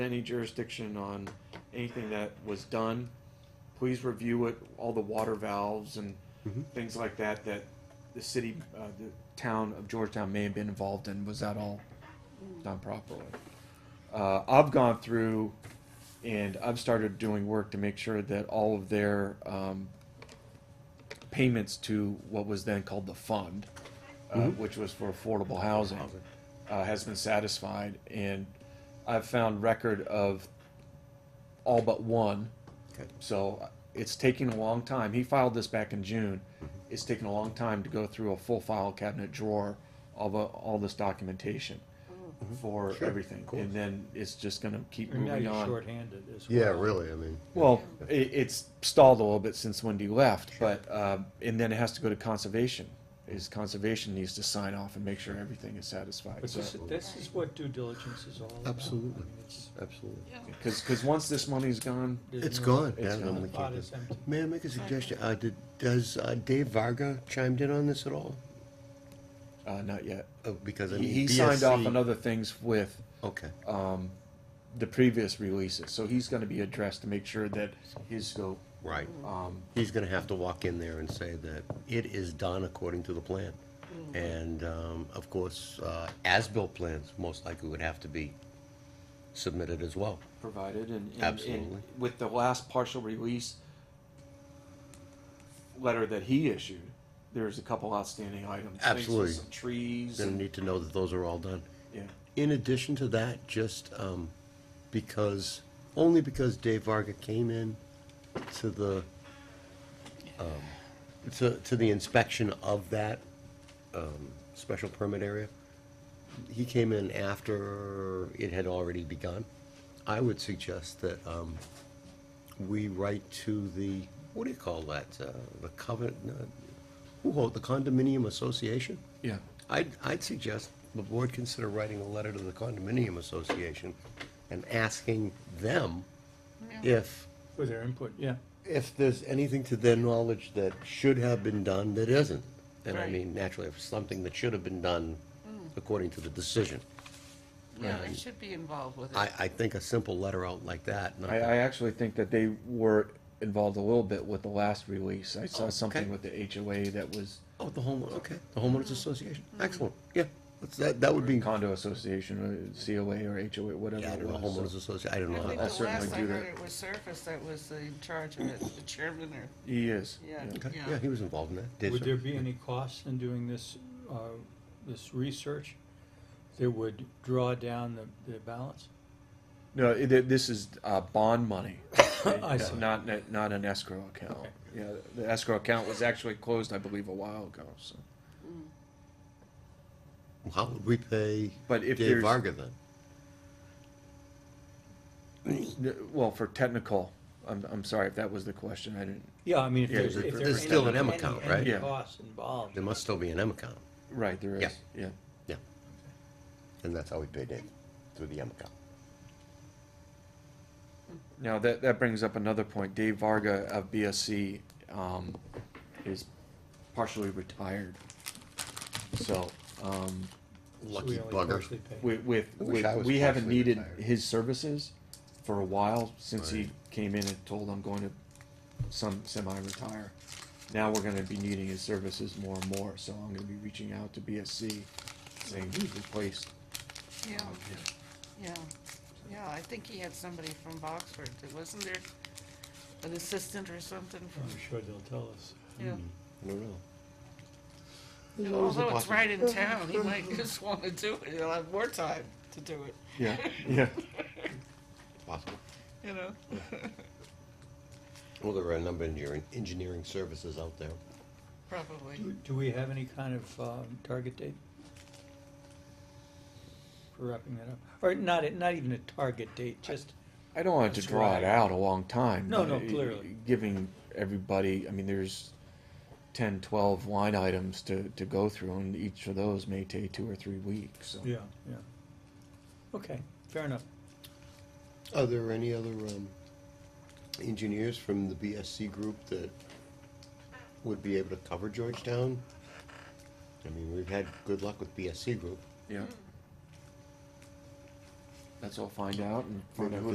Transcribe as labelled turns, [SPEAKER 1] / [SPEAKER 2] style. [SPEAKER 1] any jurisdiction on anything that was done, please review it, all the water valves and things like that, that the city, uh, the town of Georgetown may have been involved in, was that all done properly? Uh, I've gone through and I've started doing work to make sure that all of their, um, payments to what was then called the fund, uh,
[SPEAKER 2] Mm-hmm.
[SPEAKER 1] which was for affordable housing, uh, has been satisfied, and I've found record of all but one.
[SPEAKER 2] Okay.
[SPEAKER 1] So uh, it's taking a long time. He filed this back in June.
[SPEAKER 2] Mm-hmm.
[SPEAKER 1] It's taken a long time to go through a full file cabinet drawer of uh, all this documentation for
[SPEAKER 2] Mm-hmm. Sure,
[SPEAKER 1] everything,
[SPEAKER 2] of course.
[SPEAKER 1] and then it's just gonna keep
[SPEAKER 3] And now
[SPEAKER 1] moving
[SPEAKER 3] you're
[SPEAKER 1] on.
[SPEAKER 3] shorthanded as well.
[SPEAKER 2] Yeah, really, I mean.
[SPEAKER 1] Well, i it's stalled a little bit since Wendy left, but, um, and then it has to go to conservation. Is conservation needs to sign off and make sure everything is satisfied,
[SPEAKER 3] But
[SPEAKER 1] so.
[SPEAKER 3] this, this is what due diligence is all about.
[SPEAKER 2] Absolutely.
[SPEAKER 3] I mean, it's-
[SPEAKER 2] Absolutely.
[SPEAKER 1] Cause, cause once this money's gone,
[SPEAKER 3] there's
[SPEAKER 2] It's
[SPEAKER 3] no-
[SPEAKER 2] gone.
[SPEAKER 1] It's
[SPEAKER 2] Yeah, then
[SPEAKER 1] gone.
[SPEAKER 2] we
[SPEAKER 3] The pot
[SPEAKER 2] can't do-
[SPEAKER 3] is empty.
[SPEAKER 2] May I make a suggestion? Uh, did, does uh, Dave Varga chimed in on this at all?
[SPEAKER 1] uh, not yet.
[SPEAKER 2] Oh, because I mean.
[SPEAKER 1] He, he signed off
[SPEAKER 2] BSC
[SPEAKER 1] on other things with,
[SPEAKER 2] Okay,
[SPEAKER 1] um, the previous releases, so he's gonna be addressed to make sure that his scope,
[SPEAKER 2] right.
[SPEAKER 1] um,
[SPEAKER 2] He's gonna have to walk in there and say that it is done according to the plan. And, um, of course, uh, as-built plans most likely would have to be submitted as well.
[SPEAKER 1] provided and, and,
[SPEAKER 2] Absolutely.
[SPEAKER 1] and with the last partial release letter that he issued, there's a couple outstanding items. things with
[SPEAKER 2] Absolutely.
[SPEAKER 1] Some trees.
[SPEAKER 2] Gonna
[SPEAKER 1] and-
[SPEAKER 2] need to know that those are all done.
[SPEAKER 1] Yeah,
[SPEAKER 2] In addition to that, just um, because, only because Dave Varga came in to the, um, to, to the inspection of that um, special permit area, he came in after it had already begun. I would suggest that um, we write to the, what do you call that, uh, the covenant, uh, who hold, the condominium association?
[SPEAKER 1] yeah.
[SPEAKER 2] I'd, I'd suggest the board consider writing a letter to the condominium association and asking them if,
[SPEAKER 3] For their input, yeah.
[SPEAKER 2] if there's anything to their knowledge that should have been done that isn't. And I
[SPEAKER 4] Right. Hmm.
[SPEAKER 2] mean, naturally, if something that should have been done according to the decision.
[SPEAKER 4] Yeah, they
[SPEAKER 2] And
[SPEAKER 4] should be involved with it.
[SPEAKER 2] I, I think a simple letter out like that, not
[SPEAKER 1] I, I
[SPEAKER 2] that-
[SPEAKER 1] actually think that they were involved a little bit with the last release. I saw
[SPEAKER 2] Okay.
[SPEAKER 1] something with the HOA that was
[SPEAKER 2] oh, the homeowner, okay, the homeowners association,
[SPEAKER 4] Hmm.
[SPEAKER 2] excellent, yeah. That's- That, that would be, I
[SPEAKER 1] condo association, uh, or COA or HOA, whatever
[SPEAKER 2] don't
[SPEAKER 1] it
[SPEAKER 2] know,
[SPEAKER 1] was.
[SPEAKER 2] homeowners
[SPEAKER 1] so-
[SPEAKER 2] association, I don't
[SPEAKER 4] I
[SPEAKER 2] know. how
[SPEAKER 4] think
[SPEAKER 1] I'll
[SPEAKER 2] that-
[SPEAKER 4] the
[SPEAKER 1] certainly
[SPEAKER 4] last I
[SPEAKER 1] do
[SPEAKER 4] heard
[SPEAKER 1] that.
[SPEAKER 4] it was Surface that was in charge of it, the chairman or,
[SPEAKER 1] He is.
[SPEAKER 4] yeah.
[SPEAKER 2] Okay, yeah, he was involved in that. Dave,
[SPEAKER 3] Would
[SPEAKER 2] sir?
[SPEAKER 3] there be any costs in doing this, uh, this research that would draw down the, the balance?
[SPEAKER 1] No, it, this is, uh, bond money.
[SPEAKER 3] I see.
[SPEAKER 1] Not, not an escrow account.
[SPEAKER 3] Okay.
[SPEAKER 1] Yeah, the escrow account was actually closed, I believe, a while ago, so.
[SPEAKER 2] How would we pay
[SPEAKER 1] But if
[SPEAKER 2] Dave
[SPEAKER 1] there's-
[SPEAKER 2] Varga then?
[SPEAKER 1] N- Well, for technical, I'm, I'm sorry if that was the question, I didn't,
[SPEAKER 3] Yeah, I mean, if
[SPEAKER 1] Yeah,
[SPEAKER 3] there's,
[SPEAKER 2] there-
[SPEAKER 3] if
[SPEAKER 2] there's
[SPEAKER 3] there's
[SPEAKER 2] still an M
[SPEAKER 3] any,
[SPEAKER 2] account, right?
[SPEAKER 3] any
[SPEAKER 1] Yeah.
[SPEAKER 3] costs involved.
[SPEAKER 2] There must still be an M account.
[SPEAKER 1] right, there is, yeah.
[SPEAKER 2] Yeah. And that's how we pay Dave, through the M account.
[SPEAKER 1] Now, that, that brings up another point, Dave Varga of BSC, um, is partially retired. So, um,
[SPEAKER 3] So we
[SPEAKER 2] Lucky
[SPEAKER 3] only
[SPEAKER 2] bugger.
[SPEAKER 3] partially pay.
[SPEAKER 1] with, with,
[SPEAKER 2] I wish I
[SPEAKER 1] with-
[SPEAKER 2] was
[SPEAKER 1] we haven't
[SPEAKER 2] partially
[SPEAKER 1] needed
[SPEAKER 2] retired.
[SPEAKER 1] his services for a while, since he came in and told I'm going to some, semi-retire. Now we're gonna be needing his services more and more, so I'm gonna be reaching out to BSC, saying who's replaced.
[SPEAKER 4] Yeah, yeah, yeah, I think he had somebody from Boxford, that- wasn't there an assistant or something
[SPEAKER 3] I'm
[SPEAKER 4] from,
[SPEAKER 3] sure they'll tell us.
[SPEAKER 4] yeah.
[SPEAKER 1] Mm-hmm.
[SPEAKER 2] I don't know.
[SPEAKER 4] And Although it's right in town, he might just wanna do it, he'll have more time to do it,
[SPEAKER 1] Yeah, yeah.
[SPEAKER 2] Possible.
[SPEAKER 4] you know?
[SPEAKER 2] Well, there are a number of engineering, engineering services out there.
[SPEAKER 4] Probably.
[SPEAKER 3] Do, do we have any kind of, um, target date? For wrapping that up, or not, a- not even a target date, just,
[SPEAKER 1] I don't want it to
[SPEAKER 3] That's
[SPEAKER 1] draw
[SPEAKER 3] right.
[SPEAKER 1] it out a long time.
[SPEAKER 3] No,
[SPEAKER 1] but
[SPEAKER 3] no,
[SPEAKER 1] it-
[SPEAKER 3] clearly.
[SPEAKER 1] Giving everybody, I mean, there's 10, 12 line items to, to go through, and each of those may take two or three weeks, so.
[SPEAKER 3] yeah, yeah. Okay, fair enough.
[SPEAKER 2] Are there any other, um, engineers from the BSC group that would be able to cover Georgetown?
[SPEAKER 3] Mm-hmm.
[SPEAKER 2] I mean, we've had good luck with BSC group.
[SPEAKER 1] Yeah. That's all find out and find out who